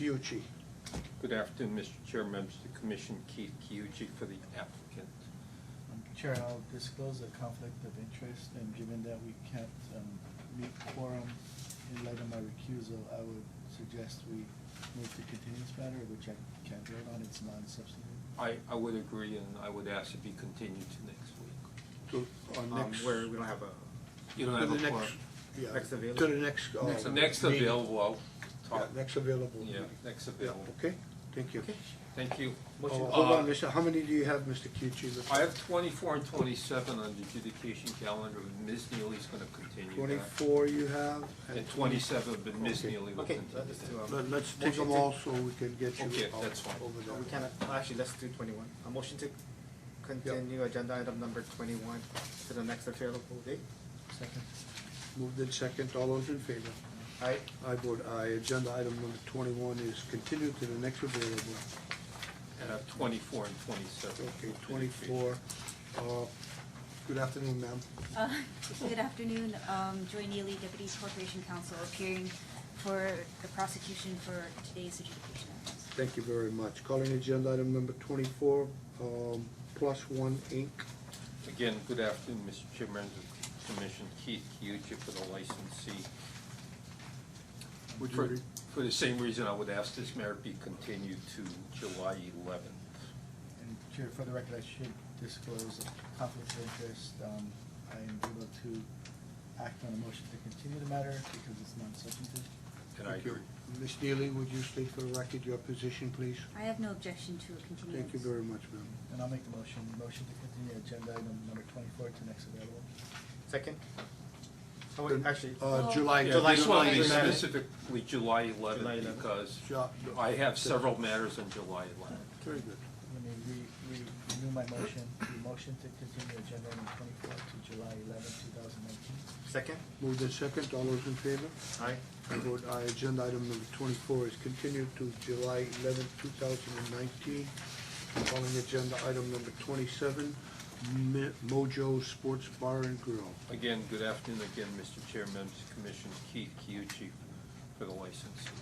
Kiuchi. Good afternoon, Mr. Chair, members of the commission, Keith Kiuchi for the applicant. Chair, I'll disclose a conflict of interest, and given that we can't um, meet quorum in light of my recusal, I would suggest we move to continue this matter, which I can't vote on, it's non-substantive. I, I would agree, and I would ask it be continued to next week. To, on Um, next. Where we don't have a, You don't to have the a next- quorum. Yeah. Next available. To the next. uh, The Next meeting. available, I'll Yeah, talk. next available. Yeah, meeting. next Yeah, available. okay, thank you. Okay. Thank you. Oh, Motion- Hold on, Uh, Mr., how many do you have, Mr. Kiuchi? I have twenty-four and twenty-seven on the adjudication calendar, and Ms. Neely's gonna continue that. Twenty-four you have? And twenty-seven, but Ms. Okay. Neely will okay, continue let's do, that. Let- um, Let's take motion them to- all so we can get you. Okay, out that's fine. Over We there. can, actually, let's do twenty-one. A motion to continue agenda item number twenty-one to the next available date. Second. Moved in second, all those in favor? Aye. I vote aye. Agenda item number twenty-one is continued to the next available. And I have twenty-four and twenty-seven. Okay, twenty-four. Uh, Good afternoon, ma'am. Uh, Good afternoon, um, Joy Neely, Deputy Corporation Counsel, appearing for the prosecution for today's adjudication. of this. Thank you very much. Calling agenda item number twenty-four, um, Plus One Inc. Again, good afternoon, Mr. Chairman of the Commission, Keith Kyuchi for the licensee. Would you For, read? for the same reason, I would ask this matter be continued to July eleventh. And Chair, for the record, I should disclose a conflict of interest. Um, I am able to act on a motion to continue the matter because it's non-substantive. And I Thank you. agree. Ms. Neely, would you state for the record your position, please? I have no objection to a continuance. Thank you very much, ma'am. And I'll make the motion, motion to continue agenda item number twenty-four to next available. Second? Oh, wait, actually, Uh, Oh. July. Yeah, July this one is 11th. specifically July July eleventh 11th. because Ju- I have several matters on July eleventh. Very good. Let me re, re, renew my motion, the motion to continue agenda item twenty-four to July eleventh, two thousand nineteen. second? Moved in second, all those in favor? Aye. I vote aye. Agenda item number twenty-four is continued to July eleventh, two thousand and nineteen. Calling agenda item number twenty-seven, Mi- Mojo Sports Bar and Grill. Again, good afternoon again, Mr. Chairman of the Commission, Keith Kyuchi for the licensee.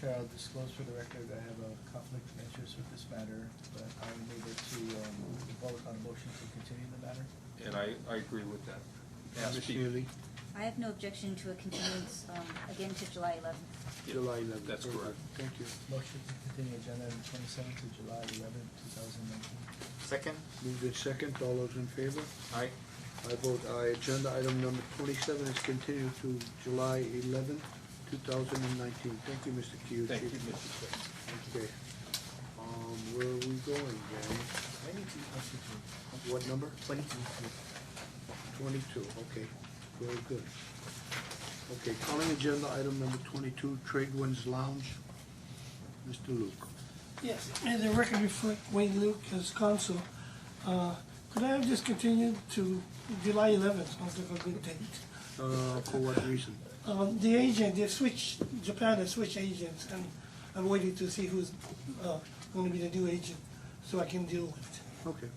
Chair, I'll disclose for the record, I have a conflict of interest with this matter, but I'm able to, um, vote on a motion to continue the matter. And I, I agree with that. Ask Ms. be- Neely, I have no objection to a continuance, um, again to July eleventh. Yeah, July eleventh. That's Very correct. good. Thank you. Motion to continue agenda item twenty-seven to July eleventh, two thousand nineteen. Second? Moved in second, all those in favor? Aye. I vote aye. Agenda item number twenty-seven is continued to July eleventh, two thousand and nineteen. Thank you, Mr. Kyuchi. Thank you, Mr. Chairman. Okay. Um, where are we going, Gary? Twenty-two. What number? Twenty-two. Twenty-two, okay, very good. Okay, calling agenda item number twenty-two, Trade Winds Lounge, Mr. Luke. Yes, and the record reflect Wayne Luke as counsel. Uh, Could I have just continued to July eleventh, sounds like a good date? Uh, for what reason? Um, The agent, they've switched, Japan has switched agents, and I'm waiting to see who's uh, going to be the new agent, so I can deal with it. Okay,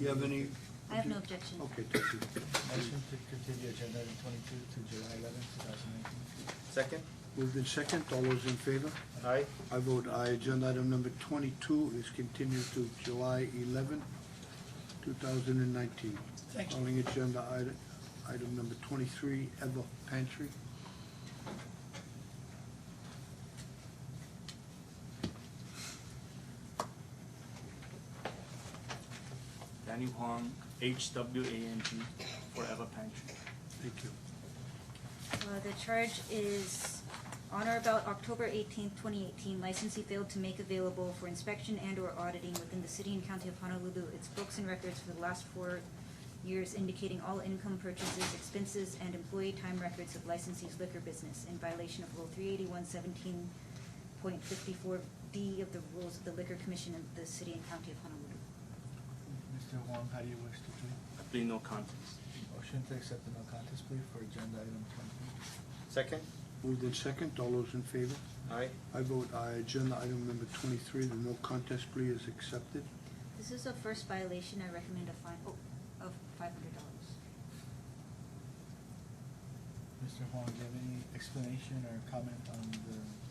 you have any? I have no objection. Okay, thank you. Motion to continue agenda item twenty-two to July eleventh, two thousand nineteen. Second? Moved in second, all those in favor? Aye. I vote aye. Agenda item number twenty-two is continued to July eleventh, two thousand and nineteen. Thank you. Calling agenda item, item number twenty-three, Ever Pantry. Danny Huang, H-W-A-N-G, Forever Pantry. Thank you. Uh, the charge is on or about October eighteenth, twenty eighteen, licensee failed to make available for inspection and or auditing within the city and county of Honolulu its books and records for the last four years indicating all income purchases, expenses, and employee time records of licensee's liquor business in violation of Rule three eighty-one seventeen point fifty-four B of the rules of the Liquor Commission of the city and county of Honolulu. Mr. Wong, how do you wish to plead? I plead no contest. Motion to accept the no contest plea for agenda item twenty-two. Second? Moved in second, all those in favor? Aye. I vote aye. Agenda item number twenty-three, the no contest plea is accepted. This is a first violation, I recommend a fine, oh, of five hundred dollars. Mr. Huang, do you have any explanation or comment on the